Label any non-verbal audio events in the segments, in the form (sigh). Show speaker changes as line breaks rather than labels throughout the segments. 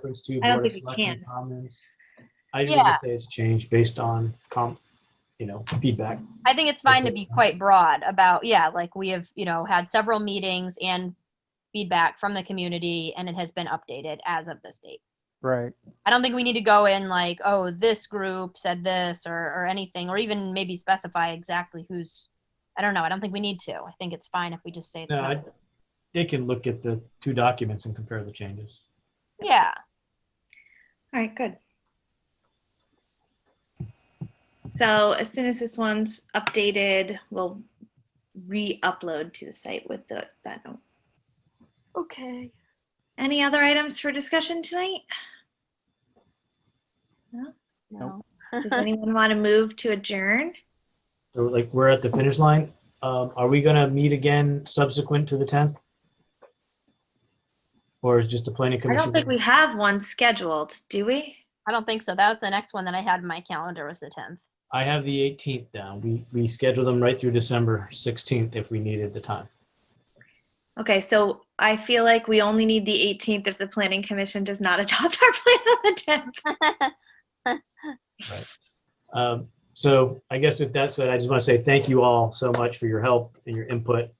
reference to
I don't
Board of
think we
Selectmen
can.
comments. I just want to say it's changed based on com, you know, feedback.
I think it's fine to be quite broad about, yeah, like we have, you know, had several meetings and feedback from the community and it has been updated as of this date.
Right.
I don't think we need to go in like, oh, this group said this or, or anything, or even maybe specify exactly who's, I don't know. I don't think we need to. I think it's fine if we just say. it's
No, I-
not-
They can look at the two documents and compare the changes.
Yeah,
All right, good. So as soon as this one's updated, we'll re-upload to the site with the, that note. Okay. Any other items for discussion tonight?
no.
Does anyone want to move to adjourn?
So like, we're at the finish line. Um, Are we going to meet again subsequent to the 10th? Or is just the planning
I
commission?
don't think we have one scheduled, do we?
I don't think so. That was the next one that I had in my calendar was the (laughs) 10th.
I have the 18th down. We, we scheduled them right through December 16th if we needed the time.
Okay, so I feel like we only need the 18th if the planning commission does not (laughs) adopt our plan on the 10th.
Um, So I guess if that's it, I just want to say thank you all so much for your help and your input.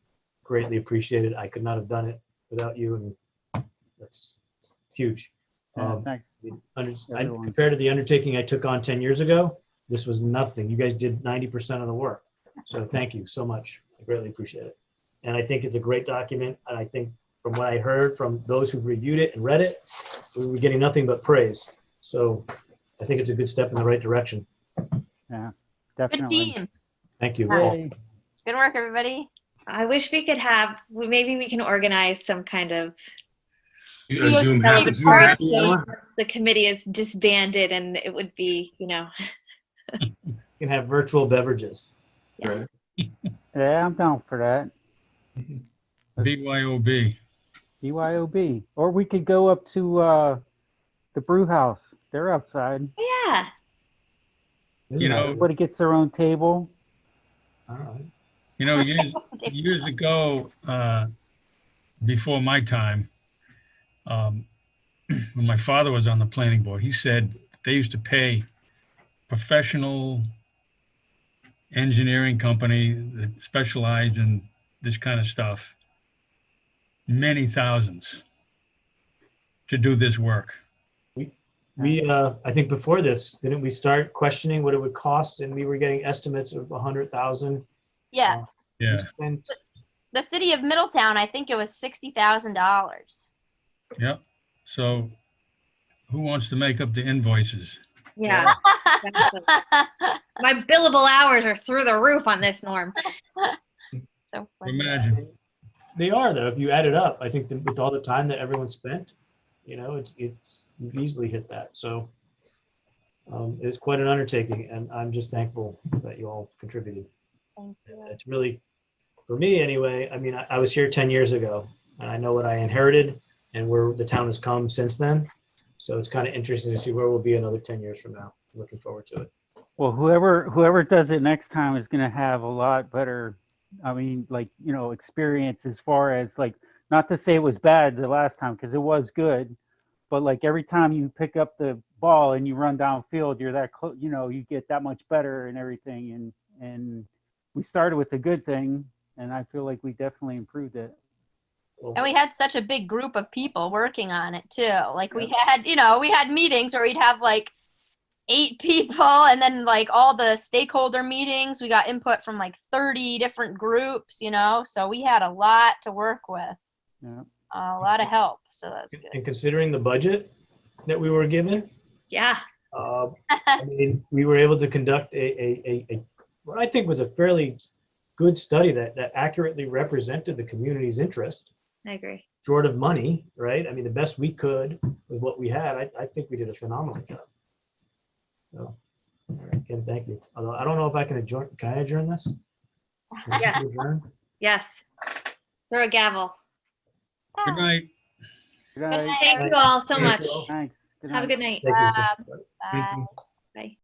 Greatly appreciated. I could not have done it without you, and that's it's huge.
Yeah,
Um,
thanks.
the under- I-
Everyone.
Compared to the undertaking I took on 10 years ago, this was nothing. You guys did 90% of the work. So thank you so much. I greatly appreciate it. And I think it's a great document, and I think from what I heard from those who've reviewed it and read it, we were getting nothing but praise. So I think it's a good step in the right direction.
Good
Definitely.
team.
Thank you all.
Yay.
Good work, everybody.
I wish we could have, we- maybe we can organize some kind of,
Yeah,
A Zoom
tell
happy,
your
Zoom happy
partners.
hour.
the committee is disbanded and it would be, you know,
You can have virtual beverages.
Right.
Yeah, I'm down for that.
BYOB.
E BYOB. Or we could go up to, uh, the brew house. They're outside.
yeah.
You know,
Everybody gets their own table.
All right.
You know, years, years ago, uh, before my time, um, (clears throat) when my father was on the planning board, he said they used to pay professional engineering company that specialized in this kind of stuff many thousands to do this work.
We, uh, I think before this, didn't we start questioning what it would cost and we were getting estimates of a hundred thousand?
Yeah,
Yeah,
And
the city of Middletown, I think it was $60,000. (laughs)
yep. So who wants to make up the invoices?
Yeah. My billable hours are through the roof on this, Norm.
So funny.
Imagine.
they are though, if you add it up, I think that with all the time that everyone spent, you know, it's, it's you've easily hit that, so. Um, it's quite an undertaking and I'm just thankful that you all contributed.
Thank you.
it's really, for me anyway, I mean, I, I was here 10 years ago and I know what I inherited and where the town has come since then. So it's kind of interesting to see where we'll be another 10 years from now. Looking forward to it.
Well, whoever, whoever does it next time is gonna have a lot better, I mean, like, you know, experience as far as like, not to say it was bad the last time, because it was good. But like every time you pick up the ball and you run downfield, you're that close, you know, you get that much better and everything. And, and we started with a good thing and I feel like we definitely improved it.
Well,
And we had such a big group of people working on it too. Like we had, you know, we had meetings where we'd have like eight (laughs) people and then like all the stakeholder meetings, we got input from like 30 different groups, you know? So we had a lot to work with,
Yeah.
a lot of help. So that's good.
And considering the budget that we were given,
Yeah.
uh, I mean, we were able to conduct a, a, a, a, what I think was a fairly good study that, that accurately represented the community's interest.
I agree.
short of money, right? I mean, the best we could with what we had, I, I think we did a phenomenal job. So, all right, Ken, thank you. Although I don't know if I can adjourn, can I adjourn this? Can I
Yeah.
adjourn?
Yes. Throw a gavel.
Good night.
Good night.
night.
Thank you all so
Thank
much.
you all.
Thanks. Good
Have a
night.
good night.
Thank you,
Bob.
sir.
Bye.
Bye.